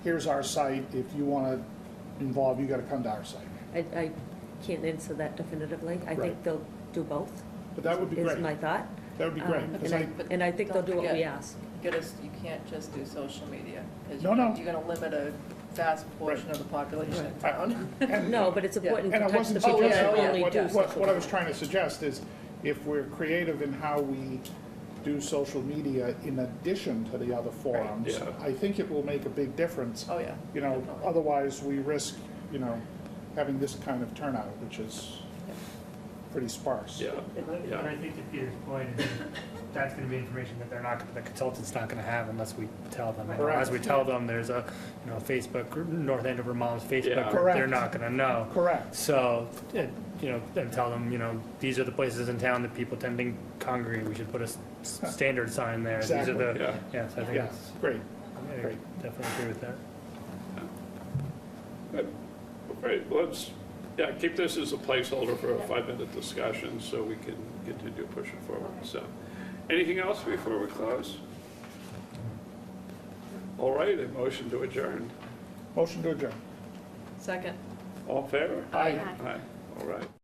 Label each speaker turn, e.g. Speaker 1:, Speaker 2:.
Speaker 1: here's our site, if you want to involve, you got to come to our site.
Speaker 2: I, I can't answer that definitively. I think
Speaker 1: Right.
Speaker 2: they'll do both,
Speaker 1: But that would be
Speaker 2: is
Speaker 1: great.
Speaker 2: my thought.
Speaker 1: That would be great.
Speaker 2: Um,
Speaker 1: 'cause
Speaker 2: And I,
Speaker 1: I-
Speaker 2: and I think they'll do what we
Speaker 3: Don't forget.
Speaker 2: ask.
Speaker 3: Get us, you can't just do social media, because
Speaker 1: No,
Speaker 3: you're
Speaker 1: no.
Speaker 3: going to limit a vast portion of the population in town.
Speaker 1: and-
Speaker 2: No, but it's
Speaker 3: Yeah.
Speaker 2: important to
Speaker 1: And I
Speaker 2: touch the
Speaker 1: wasn't
Speaker 2: people
Speaker 3: Oh, yeah,
Speaker 2: that
Speaker 3: oh, yeah.
Speaker 2: only
Speaker 1: suggesting,
Speaker 2: do
Speaker 1: what- what,
Speaker 2: social
Speaker 1: what I was
Speaker 2: media.
Speaker 1: trying to suggest is, if we're creative in how we do social media in addition to the other forums,
Speaker 4: yeah.
Speaker 1: I think it will make a big difference.
Speaker 3: Oh, yeah.
Speaker 1: You know,
Speaker 3: Definitely.
Speaker 1: otherwise, we risk, you know, having this kind of turnout, which is
Speaker 3: Yeah.
Speaker 1: pretty sparse.
Speaker 4: Yeah,
Speaker 5: But
Speaker 4: yeah,
Speaker 5: I think to Peter's point, is that's gonna be information that they're not, the consultant's not gonna have unless we tell them. And As we tell them, there's a, you know, Facebook, group, North Andover Moms
Speaker 4: Yeah.
Speaker 5: Facebook group,
Speaker 1: Correct.
Speaker 5: they're not gonna know.
Speaker 1: Correct.
Speaker 5: So, it- you know, and tell them, you know, these are the places in town that people tend to congregate, we should put a s- standard sign there. These are
Speaker 1: Exactly.
Speaker 5: the,
Speaker 4: Yeah.
Speaker 5: yeah, so I think
Speaker 1: Yeah,
Speaker 5: it's,
Speaker 1: great.
Speaker 5: I definitely agree with that.
Speaker 4: right, let's, yeah, keep this as a placeholder for a five-minute discussion, so we can continue pushing forward, so. Anything else before we close? All right, a motion to adjourn.
Speaker 1: Motion to adjourn.
Speaker 3: Second.
Speaker 4: All in favor?
Speaker 1: Aye.
Speaker 4: Aye, all right.